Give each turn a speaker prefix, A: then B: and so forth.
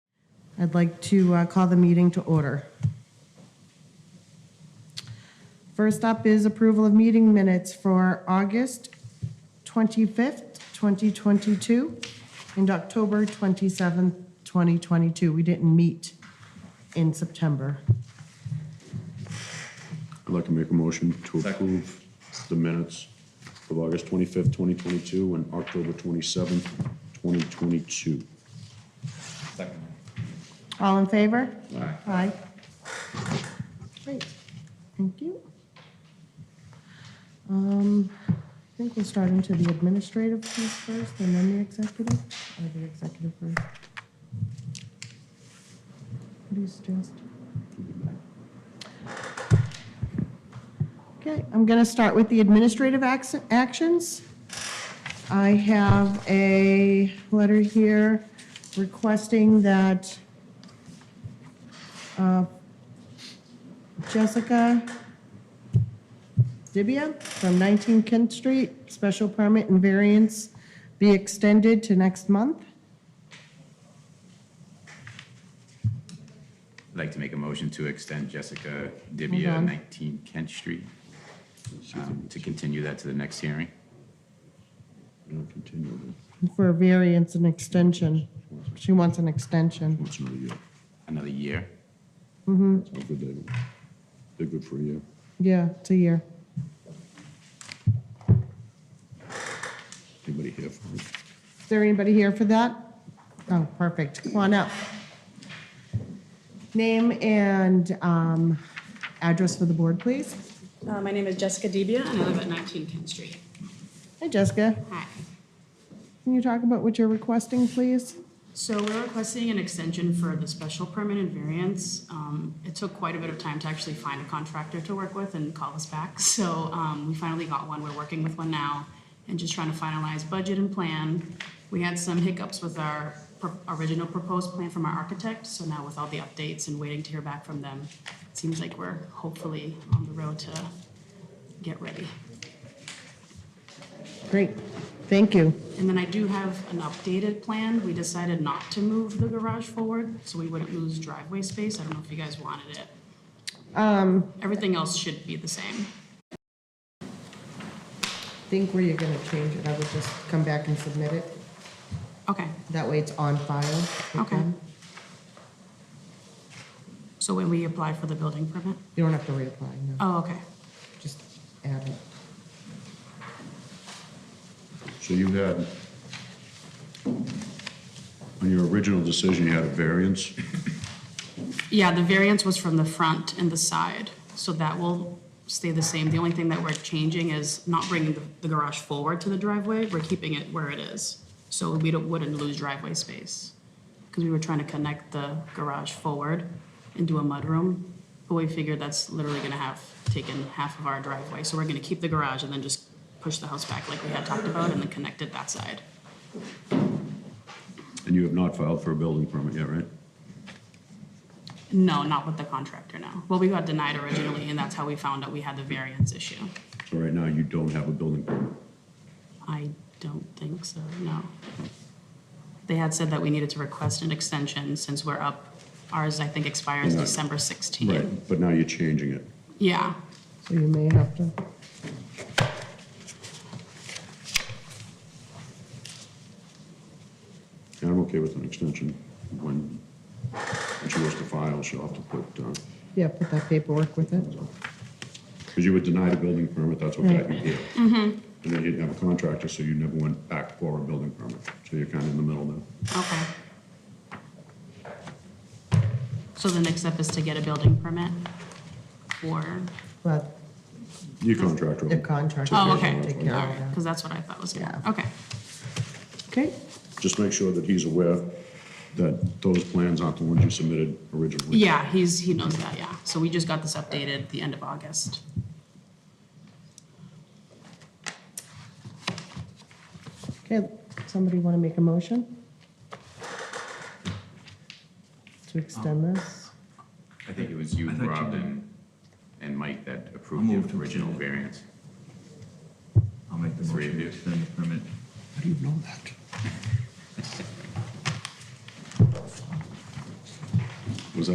A: I'd like to uh, call the meeting to order. First up is approval of meeting minutes for August 25th, 2022, and October 27th, 2022. We didn't meet in September.
B: I'd like to make a motion to approve the minutes of August 25th, 2022, and October 27th, 2022.
C: Second.
A: All in favor?
C: Aye.
A: Aye. Great, thank you. Um, I think we'll start into the administrative piece first and then the executive, or the executive first. What do you suggest? Okay, I'm going to start with the administrative acts- actions. I have a letter here requesting that uh, Jessica Dibia from 19 Kent Street, special permit and variance be extended to next month.
C: I'd like to make a motion to extend Jessica
A: Hold
C: Dibia,
A: on.
C: 19 Kent Street, um, to continue that to the next hearing.
B: And I'll continue it.
A: For a variance and extension. She wants an extension.
B: Once another year.
C: Another year.
B: That's how good they were. They're good for a year.
A: Yeah, it's a year.
B: Anybody here for it?
A: Is there anybody here for that? Oh, perfect. Come on up. Name and um, address for the board, please.
D: Uh, My name is Jessica Debia, and I live at 19 Kent Street.
A: Hi, Jessica.
D: Hi.
A: Can you talk about what you're requesting, please?
D: So we're requesting an extension for the special permit and variance. Um, It took quite a bit of time to actually find a contractor to work with and call us back. So um, we finally got one. We're working with one now and just trying to finalize budget and plan. We had some hiccups with our pro- original proposed plan from our architect. So now with all the updates and waiting to hear back from them, it seems like we're hopefully on the road to get ready.
A: Great, thank you.
D: And then I do have an updated plan. We decided not to move the garage forward, so we wouldn't lose driveway space. I don't know if you guys wanted it. Um. Everything else should be the same.
A: Think where you're gonna change it, I would just come back and submit it.
D: Okay,
A: That way it's on file. with
D: Okay.
A: them.
D: so when we apply for the building permit?
A: You don't have to reapply, no,
D: Oh, okay.
A: just add it.
B: So you had, on your original decision, you had a variance.
D: Yeah, the variance was from the front and the side, so that will stay the same. The only thing that we're changing is not bringing the- the garage forward to the driveway. We're keeping it where it is, so we don't- wouldn't lose driveway space. Because we were trying to connect the garage forward into a mudroom, but we figured that's literally gonna have taken half of our driveway. So we're gonna keep the garage and then just push the house back like we had talked about and then connected that side.
B: And you have not filed for a building permit yet, right?
D: No, not with the contractor, no. Well, we got denied originally, and that's how we found out we had the variance issue.
B: So right now, you don't have a building permit.
D: I don't think so, no. They had said that we needed to request an extension since we're up. Ours, I think, expires
B: Yeah.
D: December 16.
B: Right, but now you're changing it.
D: Yeah,
A: So you may have to.
B: And I'm okay with an extension when, when she goes to file, she'll have to put, uh,
A: Yeah, put that paperwork with it.
B: Because you were denied a building permit, that's what got you here. And then you didn't have a contractor, so you never went back for a building permit. So you're kind of in the middle there.
D: okay. So the next step is to get a building permit or,
A: But
B: Your contractor.
A: the contractor.
D: oh,
A: will
D: okay, all
A: take care of
D: right,
A: that.
D: because that's what I thought was going to,
A: Yeah.
D: okay.
A: Okay,
B: Just make sure that he's aware that those plans aren't the ones you submitted originally.
D: Yeah, he's, he knows that, yeah. So we just got this updated the end of August.
A: okay, somebody wanna make a motion? To extend this?
C: I think it was you,
E: I thought you
C: Rob,
E: did.
C: and, and Mike that
E: I'll
C: approved
E: move
C: the
E: to
C: original
E: extend it.
C: variance.
E: I'll make the
C: Three of
E: motion to
C: you.
E: extend the permit.
B: How do you know that?